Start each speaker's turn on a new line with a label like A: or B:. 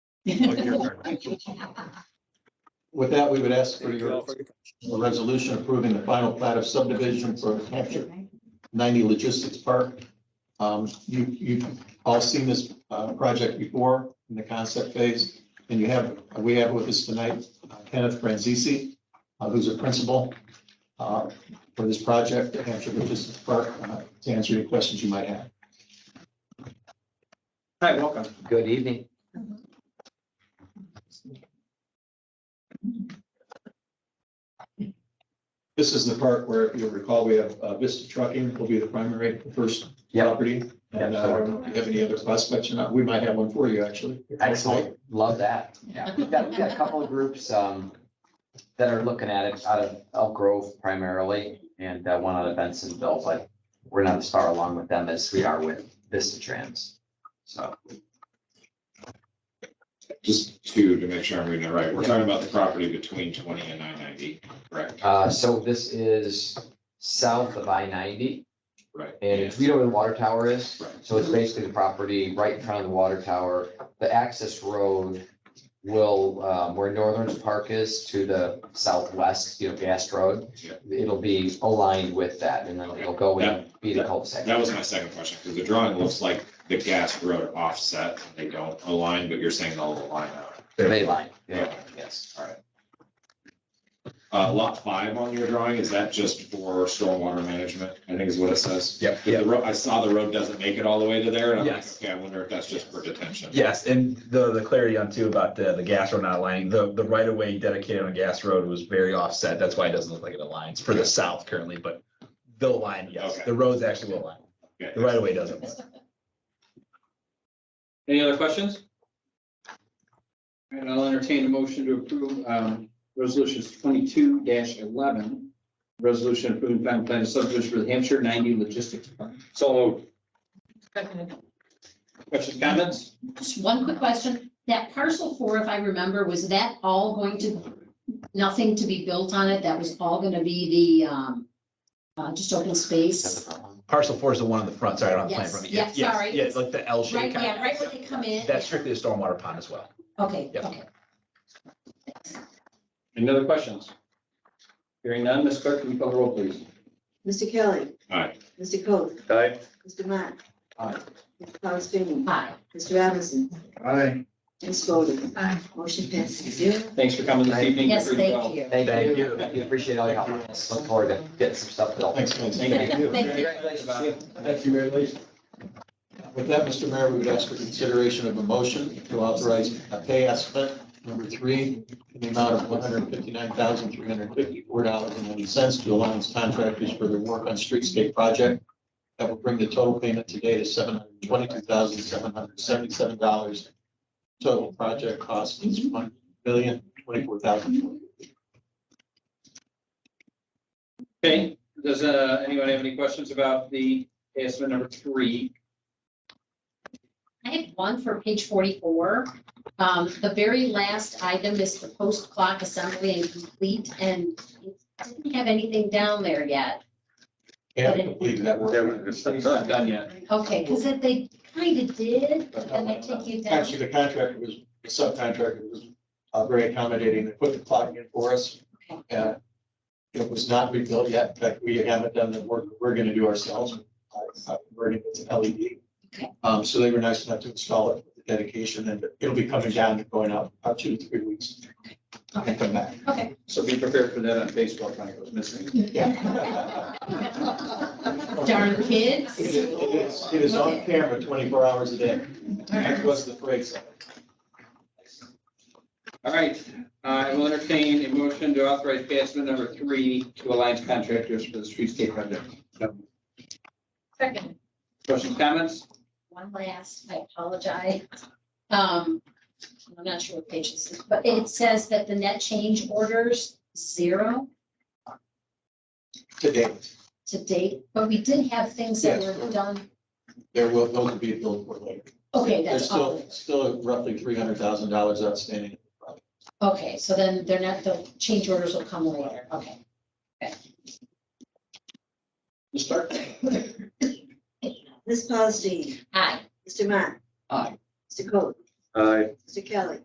A: Oh,
B: With that, we would ask for your a resolution approving the final plat of subdivision for Hampshire 90 Logistics Park. Um, You, you've all seen this uh, project before in the concept phase, and you have, we have with us tonight uh, Kenneth Franzisi, uh, who's a principal uh, for this project at Hampshire Logistics Park, uh, to answer any questions you might have.
C: Hi, welcome.
D: Good evening.
B: This is the part where, if you'll recall, we have uh, Vista Trucking will be the primary first
D: Yep.
B: property. And uh, I don't know if you have any other prospects or not. We might have one for you, actually.
D: Excellent. Love that. Yeah, we've got, we've got a couple of groups, um, that are looking at it out of Elk Grove primarily and uh, one out of Bensonville, but we're not as far along with them as we are with Vista Trans. So,
E: Just two, to make sure I'm reading it right, we're talking about the property between twenty and nine ninety, correct?
D: uh, so this is south of I ninety
E: Right.
D: and it's, we know where the water tower is.
E: Right.
D: So it's basically the property right in front of the water tower. The access road will, um, where Northern Park is to the southwest, you know, Gas Road.
E: Yeah.
D: It'll be aligned with that and then it'll go and be the
E: That
D: cul-de-sac.
E: was my second question, because the drawing looks like the gas road offset, they don't align, but you're saying they'll align out.
D: The Bay line, yeah,
E: Yeah.
D: yes.
E: All right. Uh, lot five on your drawing, is that just for stormwater management, I think is what it says?
F: Yep.
E: The road, I saw the road doesn't make it all the way to there, and I'm like,
F: Yes.
E: okay, I wonder if that's just for detention.
F: Yes, and the, the clarity on too about the, the gas road not aligning, the, the right of way dedicated on gas road was very offset. That's why it doesn't look like it aligns for the south currently, but they'll align, yes.
E: Okay.
F: The roads actually will align.
E: Okay.
F: The right of way doesn't.
C: Any other questions? And I'll entertain a motion to approve um, resolutions twenty-two eleven. Resolution approving final plan of subdivision for the Hampshire ninety logistics park. So moved. questions, comments?
A: Just one quick question. That parcel four, if I remember, was that all going to, nothing to be built on it? That was all going to be the, um, uh, just open
D: That's the
A: space?
D: problem.
F: Parcel four is the one on the front, sorry, I don't have the plan in
A: Yes,
F: front of
A: yeah, sorry.
F: Yeah, it's like the L shape.
A: Right,
F: kinda.
A: yeah, right where they come in.
F: That's strictly a stormwater pond as well.
A: Okay,
F: Yep.
A: okay.
C: Any other questions? Hearing none, Ms. Clerk, can you call the roll, please?
G: Mr. Kelly.
E: Aye.
G: Mr. Coe.
C: Aye.
G: Mr. Matt.
C: Aye.
G: Mr. Paulson.
A: Hi.
G: Mr. Robinson.
C: Aye.
G: Ms. Fodor. Motion passes six zero.
C: Thanks for coming this evening.
A: Yes,
C: Well,
A: thank you.
D: Thank
F: Thank
D: you.
F: you.
D: We Appreciate all your help. on this. Look forward to getting some stuff built.
B: Thanks, Vince.
C: Thank you.
A: Thank you.
C: Congratulations.
B: Thank you, Mary Lee. With that, Mr. Mayor, we would ask for consideration of a motion to authorize a pay estimate number three in the amount of one hundred fifty-nine thousand, three hundred fifty-four dollars and ninety cents to Alliance Contractors for their work on streetscape project. That will bring the total payment today to seven hundred twenty-two thousand, seven hundred seventy-seven dollars. Total project cost is one million, twenty-four thousand.
C: Okay, does uh, anyone have any questions about the estimate number three?
A: I have one for page forty-four. Um, the very last item is the post clock assembly and complete, and it didn't have anything down there yet.
B: Can't complete that work.
C: It's not done yet.
A: Okay, because if they kind of did, but then they take you down.
B: Actually, the contractor was, the subcontractor was uh, very accommodating. They put the clock in for us. And it was not rebuilt yet. In fact, we haven't done the work. We're going to do ourselves. Uh, Converting it to LED.
A: Okay.
B: Um, so they were nice enough to install it with dedication and it'll be coming down and going out about two to three weeks. And come back.
A: Okay.
C: So be prepared for that on Facebook when it goes missing.
B: Yeah.
A: Darn kids.
B: It is- it is, it is on camera twenty-four hours a day. That was the phrase.
C: All right, I will entertain a motion to authorize pay estimate number three to Alliance Contractors for the streetscape project.
A: Second.
C: Questions, comments?
A: One last, I apologize. Um, I'm not sure what page this is, but it says that the net change orders zero
B: Today,
A: to date, but we did have things that
B: Yes.
A: were done.
B: there will, those will be billed for later.
A: Okay,
B: There's
A: that's
B: still,
A: all.
B: still roughly three hundred thousand dollars outstanding.
A: Okay, so then they're not, the change orders will come later. Okay.
C: Ms. Stark?
G: Ms. Paulson.
A: Aye.
G: Mr. Matt.
C: Aye.
G: Mr. Coe.
C: Aye.
G: Mr. Kelly.